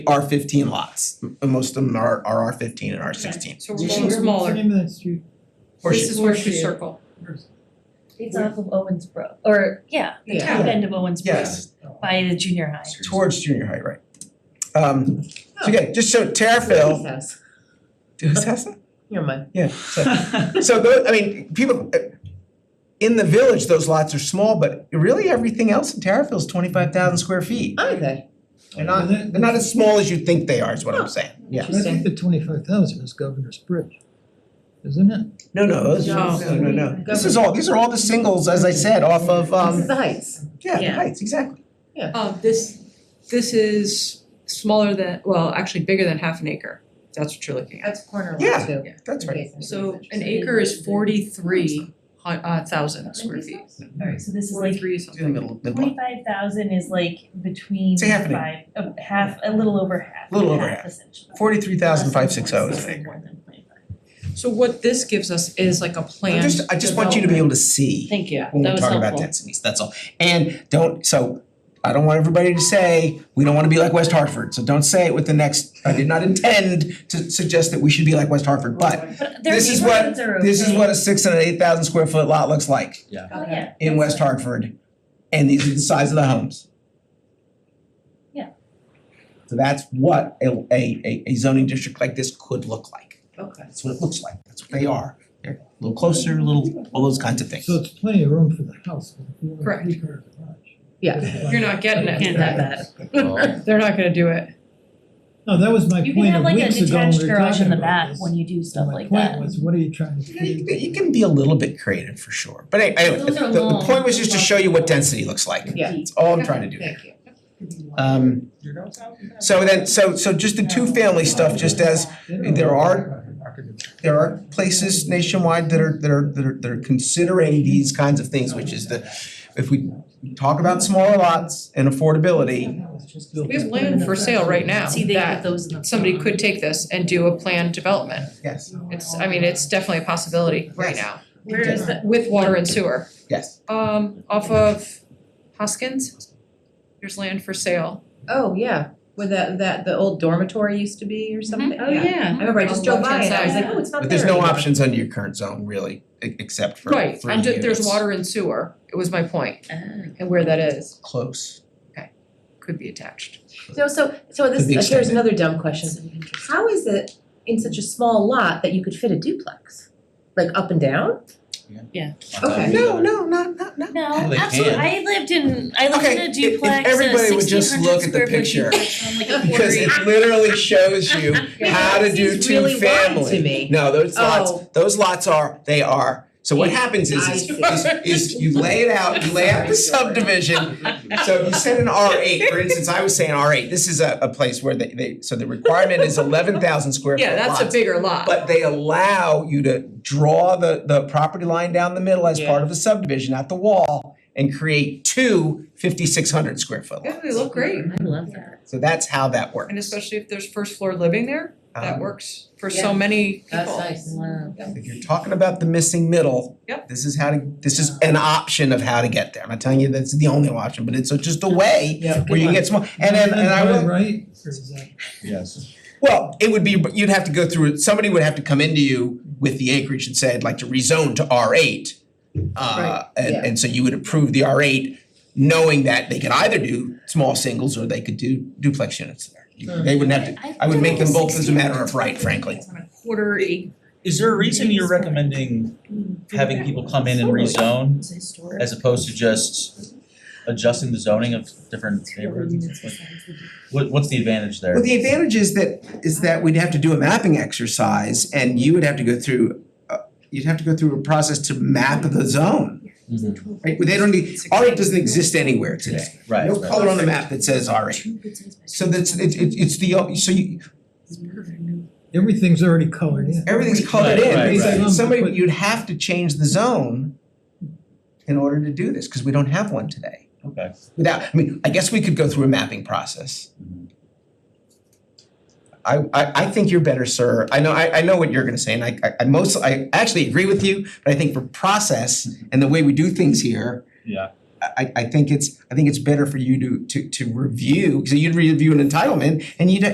R fifteen lots. M- Most of them are are R fifteen and R sixteen. So What's we're going the name- What's the smaller. name of that street? Horseshoe. This is Horseshoe Horseshoe. Circle. It's off of Owensboro, or yeah, the Yeah. top end of Owensboro Yes, by the junior high. towards junior high, right. Um, Oh. so yeah, just so Terrifil, who's that? Never mind. Yeah, so so tho- I mean, people, uh, in the village, those lots are small, but really everything else in Terrifil is twenty five thousand square feet. Are they? They're not, they're not as small as you think they are, is what I'm saying, yeah. I think the twenty-five thousand is Governor's Bridge, isn't it? No, no, those- No. no, no, no. This is all, these are all the singles, as I said, off of, um, the Heights. yeah, the Yeah. heights, exactly. Uh, this, this is smaller than, well, actually bigger than half an acre. That's what you're looking at. That's corner Yeah, lot too. That's right. So an acre is forty-three hu- uh, thousand square feet. Mm-hmm. Alright, so this is like Forty-three is It's in the middle, of the block. twenty-five thousand is like between Say half an five, uh, half, a little over half, Little over half. half essentially. Forty-three thousand five six oh is Less an than acre. 1.6, more than 25. So what this gives us is like a I plan. just, I just want you to be able to see Thank you, that when we was talk about helpful. densities, that's all. And don't, so, I don't want everybody to say, we don't wanna be like West Hartford, so don't say it with the next, I did not intend to suggest that we should be like West Hartford, but But their This is what- neighborhoods are okay. this is what a six and an eight thousand square foot lot looks like Oh, yeah. in West Hartford, and these are the size of the homes. Yeah. So that's what a, a, a- a zoning district like this could look like. Okay. That's what it looks like. That's what they are. They're a little closer, a little, all those kinds of things. So it's plenty of room for the house, but if you want a Correct. three-car garage. You're not getting it. Can't have They're not gonna do it. No, that was my You can point have of like a weeks ago when we detached were garage talking in the about back this. when you do stuff like My that. point was, what are you trying to? You can- you can be a little bit creative for sure. But any- anyway, Those the, are the long. point was just to show you what density looks like. Yeah. That's all I'm trying to do there. you. Um, so then, so, so just the two-family stuff, just as There are- there are places nationwide that are, that are, that are, that are considering these kinds of things, which is the, if we talk about smaller lots and affordability, We have land for sale right now See, they put that those in the. somebody could take this and do a planned development. yes, It's, I mean, it's definitely a possibility right Yes. now Where is the, with water and sewer. yes. Um, off of Hoskins, there's land for sale. Oh, yeah, where that that the old dormitory used to be or something, oh yeah, I remember I On just the drove by left-hand and I was side. like, oh, it's not But there there's no anymore." options under your current zone really, e- except for three Right, units. and ju- there's water and sewer, it was my point, and where that is, Close. could be attached. No, so so this, uh, Could be here's extended. another dumb question, how is it in such a small lot that you could fit a duplex? Like up and down? Okay. No, no, not, not, not. Well, No, they absolutely, can. I lived in, I lived Okay, in if- a if duplex, a everybody would sixteen just hundred look at the square foot picture. duplex on like a Because quarter it literally shows you how to do Seems two really wide family. to me. No, those lots, Oh. those lots are, they are, so what happens is, I is, see. is, is you lay it out, you lay out the subdivision. So you said an R eight, for instance, I was saying R eight, this is a, a place where they, they, so the requirement is eleven thousand square foot Yeah, that's a lots, bigger lot. But they allow you to draw the, the property line down the middle as part of the subdivision, not the wall, and create two 5,600 square foot Yeah, lots. they look great, Mm-hmm. I love that. So that's how that works. and especially if there's first floor living there, that Um, works for Yeah. so many people. That's nice. Wow. If you're talking about the missing middle. Yep. This is how to, this is an option of how to get there. I'm not telling you that's the only option, but it's just a way Yeah. where you can get small, and then, and I will, Right, or is that? Yes. well, it would be, you'd have to go through, somebody would have to come into you with the acreage and say, I'd like to rezone to R eight. Uh, Right, and, yeah. and so you would approve the R eight, knowing that they could either do small singles or they could do duplex units there. You- They wouldn't have to, I would make them both as a matter of right, frankly. On a quarter acre. Is there a reason you're recommending having people come in and rezone It's historic. as opposed to just adjusting the zoning of different neighborhoods? Like, What, what's the advantage there? Well, the advantage is that, is that we'd have to do a mapping exercise and you would have to go through, uh, you'd have to go through a process to map the zone, Mhm. right? They don't need, R eight doesn't exist anywhere today. Right, No right. color on the map that says R eight. So that's, it, it, it's the, o- so you, Everything's already colored in. everything's colored in. Right, right, It's like right. Somebody, you'd have to change the zone in order to do this, cause we don't have one today. Okay. Without, I mean, I guess we could go through a mapping process. I I I think you're better, sir. I know I I know what you're gonna say, and I I I most I actually agree with you, but I think for process and the way we do things here. Yeah. I- I I think it's I think it's better for you to to to review, because you'd review an entitlement and you'd